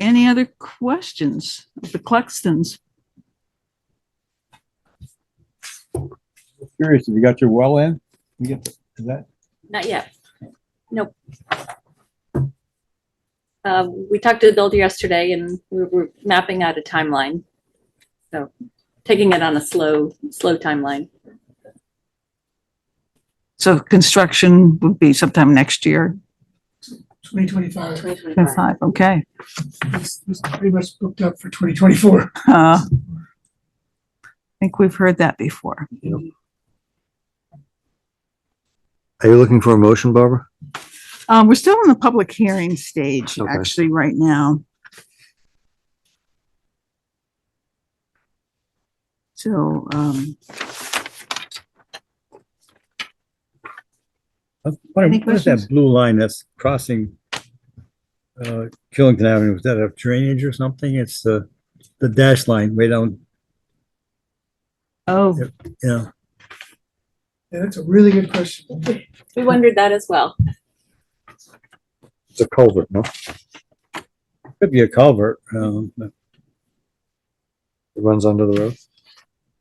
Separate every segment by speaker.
Speaker 1: Any other questions of the Cluxtons?
Speaker 2: Curious, have you got your well in? You get, is that,
Speaker 3: Not yet. Nope. Um, we talked to the builder yesterday and we were mapping out a timeline. So taking it on a slow, slow timeline.
Speaker 1: So construction would be sometime next year,
Speaker 4: 2025.
Speaker 3: 2025.
Speaker 1: five, okay.
Speaker 4: It's it's pretty much booked up for 2024.
Speaker 1: Uh, I think we've heard that before.
Speaker 5: Are you looking for a motion, Barbara?
Speaker 1: Um, we're still in the public hearing stage,
Speaker 5: Okay.
Speaker 1: actually, right now. So, um,
Speaker 2: what what
Speaker 1: Any
Speaker 2: is
Speaker 1: questions?
Speaker 2: that blue line that's crossing? Uh, Killington Avenue, is that a drainage or something? It's the, the dash line way down,
Speaker 1: oh,
Speaker 2: yeah.
Speaker 4: Yeah, that's a really good question.
Speaker 3: We wondered that as well.
Speaker 5: It's a culvert, no?
Speaker 2: Could be a culvert, um, but
Speaker 5: It runs under the road.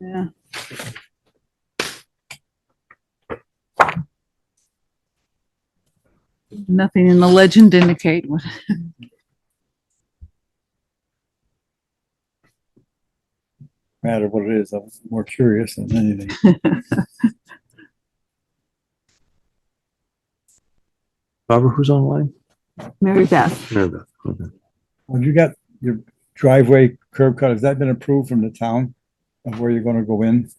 Speaker 1: yeah. Nothing in the legend indicate what.
Speaker 2: no matter what it is, I was more curious than anything.
Speaker 5: Barbara, who's online?
Speaker 1: Mary Beth,
Speaker 5: Mary Beth, okay.
Speaker 2: When you got your driveway curb cut, has that been approved from the town of where you're gonna go in?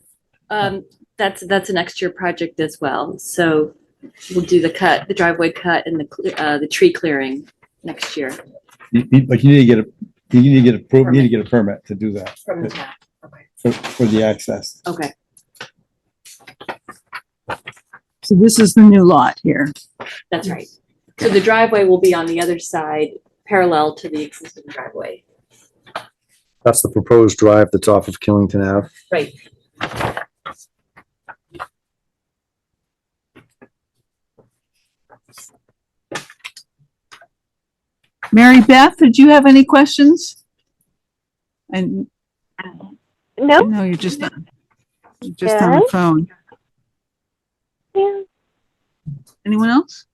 Speaker 3: Um, that's, that's an extra project as well. So we'll do the cut, the driveway cut and the, cle- uh, the tree clearing next year
Speaker 2: You- you- But you need to get a, you need to get approved, you need to get a permit to do that
Speaker 3: from the town.
Speaker 2: for, for the access.
Speaker 3: Okay.
Speaker 1: so this is the new lot here.
Speaker 3: That's right. So the driveway will be on the other side, parallel to the existing driveway.
Speaker 5: That's the proposed drive that's off of Killington Ave.
Speaker 3: Right.
Speaker 1: Mary Beth, did you have any questions? And
Speaker 6: No,
Speaker 1: no, you're just, on- you're just on the phone.
Speaker 6: yeah.
Speaker 1: Anyone else?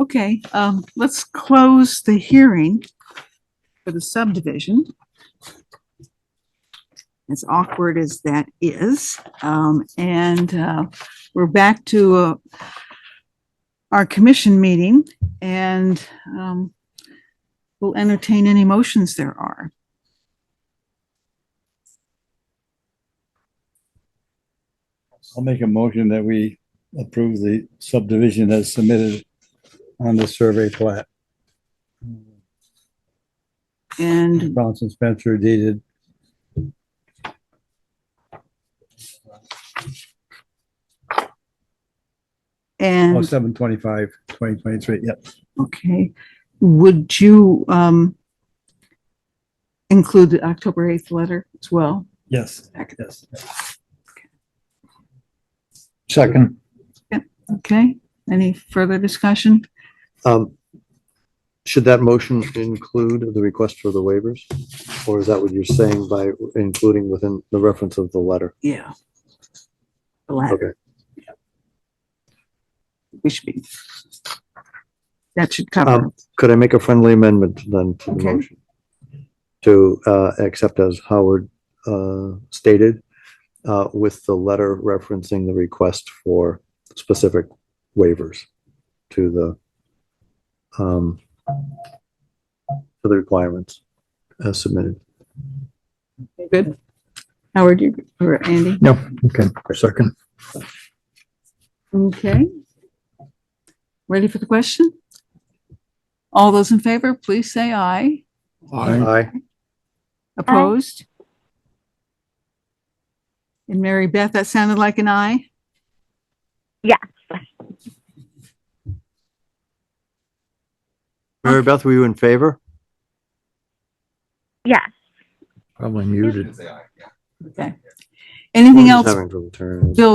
Speaker 1: Okay, um, let's close the hearing for the subdivision. As awkward as that is, um, and, uh, we're back to, uh, our commission meeting and, um, we'll entertain any motions there are.
Speaker 2: I'll make a motion that we approve the subdivision as submitted on the survey plat.
Speaker 1: And
Speaker 2: Bronson Spencer dated.
Speaker 1: and.
Speaker 2: Oh, seven twenty-five, twenty twenty-three, yep.
Speaker 1: Okay, would you, um, include the October 8th letter as well?
Speaker 2: Yes,
Speaker 1: Second.
Speaker 2: yes.
Speaker 5: Second.
Speaker 1: Okay, any further discussion?
Speaker 5: Um, should that motion include the request for the waivers? Or is that what you're saying by including within the reference of the letter?
Speaker 1: Yeah. The latter,
Speaker 5: Okay,
Speaker 1: we should be. That should cover,
Speaker 5: Um, could I make a friendly amendment then to the
Speaker 1: Okay.
Speaker 5: motion? To, uh, accept as Howard, uh, stated, uh, with the letter referencing the request for specific waivers to the, um, to the requirements as submitted.
Speaker 1: good. Howard, you, or Andy?
Speaker 5: No, okay, second.
Speaker 1: Okay. Ready for the question? All those in favor, please say aye.
Speaker 5: Aye.
Speaker 1: Opposed? And Mary Beth, that sounded like an aye?
Speaker 6: Yes.
Speaker 5: Mary Beth, were you in favor?
Speaker 6: Yes.
Speaker 5: Probably muted.
Speaker 1: Okay. Anything else,
Speaker 5: Having trouble turning.
Speaker 1: Bill,